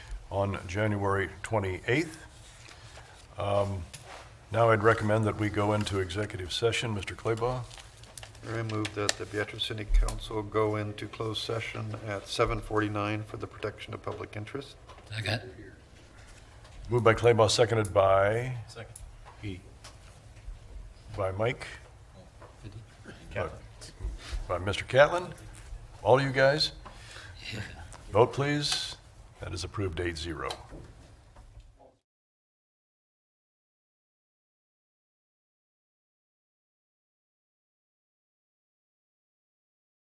on January 28th. Um, Now I'd recommend that we go into executive session. Mr. Claybaugh? I move that the Beatrice City Council go into closed session at 7:49 for the protection of public interest. Second. Moved by Claybaugh, seconded by, Second. by Mike? By Mr. Catlin? All you guys? Vote, please. That is approved eight zero.